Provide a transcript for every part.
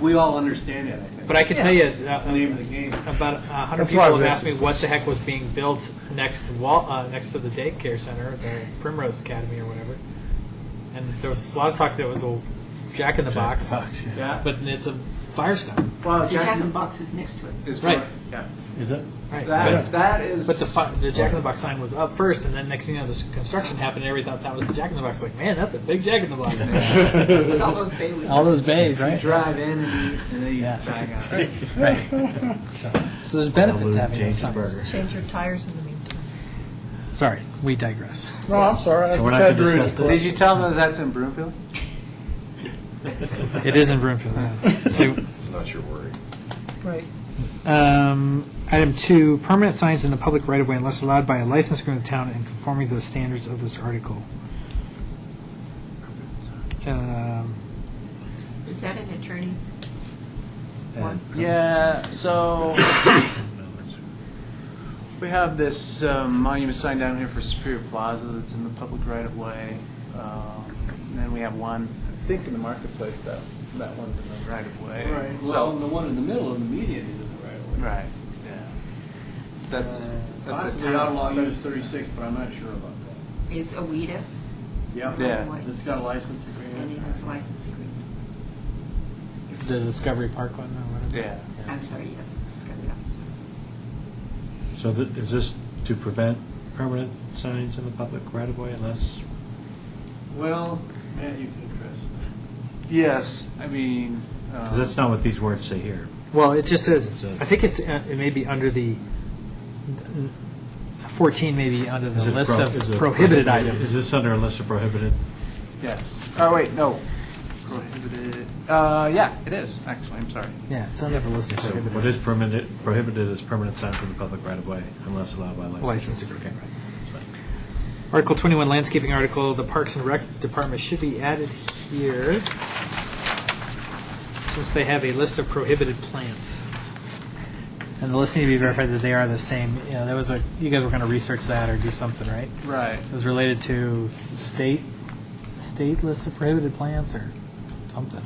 We all understand it, I think. But I can tell you, uh, That's the name of the game. about a hundred That's why people have we- asked me what the heck was being built next to wall, uh, next to the daycare center, the Primrose Academy or whatever. And there was a lot of talk that it was a Jack in the Box, Yeah. but it's a Firestone, Well, The Jack Jack in the Box is next to it. is Right. right. Yeah. Is it? right? That, But, that is. but the fi- the Jack in the Box sign was up first, and then next thing you know, this construction happened. and Everybody thought that was the Jack in the Box. Like, man, that's a big Jack in the Box. With all those bay windows. All those bays, You right? drive in and, you, and then you Yeah. bang out. Right. So, so there's benefit to having those signs. Change your tires in the meantime. Sorry, we digress. No, I'm sorry. I So we're just not had to gonna read discuss it. Did you tell them that that's in Broomfield? It isn't room for that. So It's not your worry. Right. Um, Item two, permanent signs in the public right-of-way unless allowed by a license agreement of the town and conforming to the standards of this article. Um, Is that an attorney? Uh, Yeah, so we have this um, monument sign down here for Superior Plaza that's in the public right of way. Um, and then we have one, I think, in the marketplace though. That one's in the right of way. Right, So well, and the one in the middle of the median is in the right of way. right, yeah. That's that's Uh, a Possibly town- outlaw use thirty-six, but I'm not sure about Is Awida? that. Yeah. It's got a license And he agreement. has a license agreement. The Discovery Park one or whatever. Yeah. I'm sorry, yes, Discovery Office. So th- is this to prevent permanent signs in the public right-of-way unless, Well, Matt, you can address. Yes, I mean. because Um, that's not what these words say here. Well, it just says, I think it's, uh, it may be under the, 14 may be under the Is it list pro- is of prohibited it prohibited- items. Is this under a list of prohibited? yes. Oh wait, no. Prohibited. Uh, yeah, it is actually. I'm sorry. Yeah, it's under the list of So prohibited. what is permitted, prohibited is permanent signs in the public right-of-way unless allowed by license. License agreement. Article 21, landscaping article, the Parks and Rec Department should be added here, since they have a list of prohibited plants. And the list need to be verified that they are the same, you know, there was a, you guys were going to research that or do something, right? Right. It was related to state, state list of prohibited plants or something.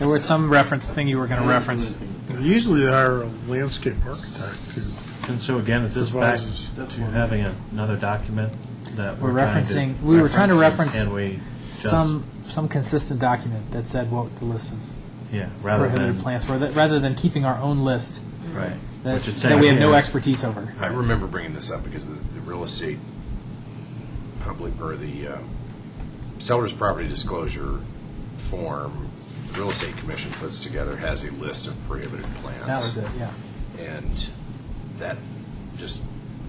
There was some reference thing you were going to reference. Usually they hire a landscape architect too. And so again, is this back Advises. to having another document that We're we're trying to referencing- we were trying to reference And we just, Some, some consistent document that said what the list of yeah, rather prohibited than, plants, rather rather than keeping our own list right. that Which it's that we have no saying here. expertise over. I remember bringing this up because the, the real estate public, or the um, seller's property disclosure form, the real estate commission puts together, has a list of prohibited plants. That was it, yeah. And that just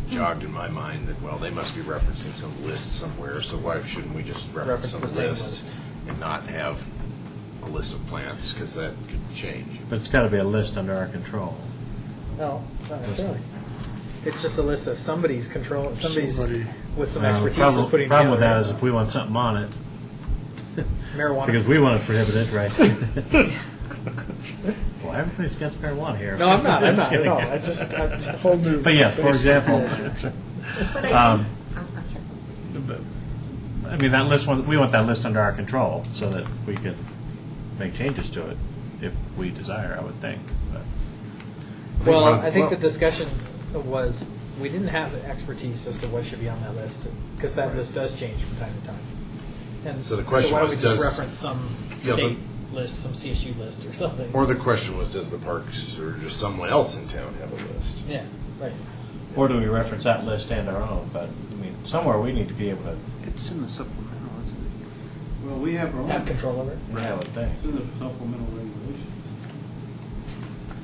jogged in my mind that, well, they must be referencing some list somewhere, so why shouldn't we just reference Reference some the same list? list. And not have a list of plants, because that could change. But it's got to be a list under our control. No, not necessarily. It's just a list of somebody's control, Somebody. with some Now, the Uh, problem- Problem with that is if we want something on it, Because marijuana. we want to prohibit it, right? Well, everybody's against marijuana here. No, I'm not, I'm not, Just kidding. no, I just, I just- Whole new. But yes, for example, But I, Um, I'm- I'm sorry. I mean, that list, one- we want that list under our control so that we can make changes to it if we desire, I would think. But well, one of- I think the well- discussion was, we didn't have the expertise as to what should be on that list, because that list does change from time to time. And So the question why don't was, we just does- reference some Yeah, but- state list, some CSU list or something? Or the question was, does the parks or does someone else in town have a list? Yeah, right. Or do we reference that list and our own? But, I mean, somewhere we need to be able to It's in the supplemental, isn't it? Well, we have our own, Have it's control over it. have a thing. in the supplemental regulations.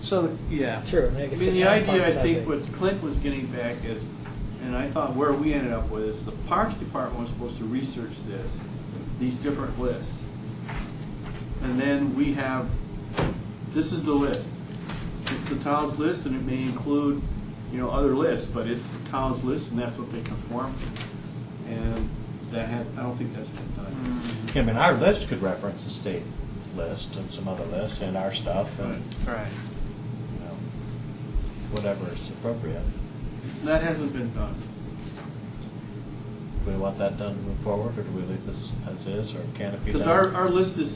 So, yeah. Sure. I mean, the idea, I think, what Clint was getting back is, and I thought where we ended up with, is the Parks Department was supposed to research this, these different lists. And then we have, this is the list. It's the town's list, and it may include, you know, other lists, but it's the town's list, and that's what they conform to. And that had, I don't think that's been done. I mean, our list could reference the state list and some other lists and our Mm, stuff and, Right. you know, whatever is appropriate. That hasn't been done. Do we want that done to move forward, or do we leave this as is, or can it be done? Because our, our list is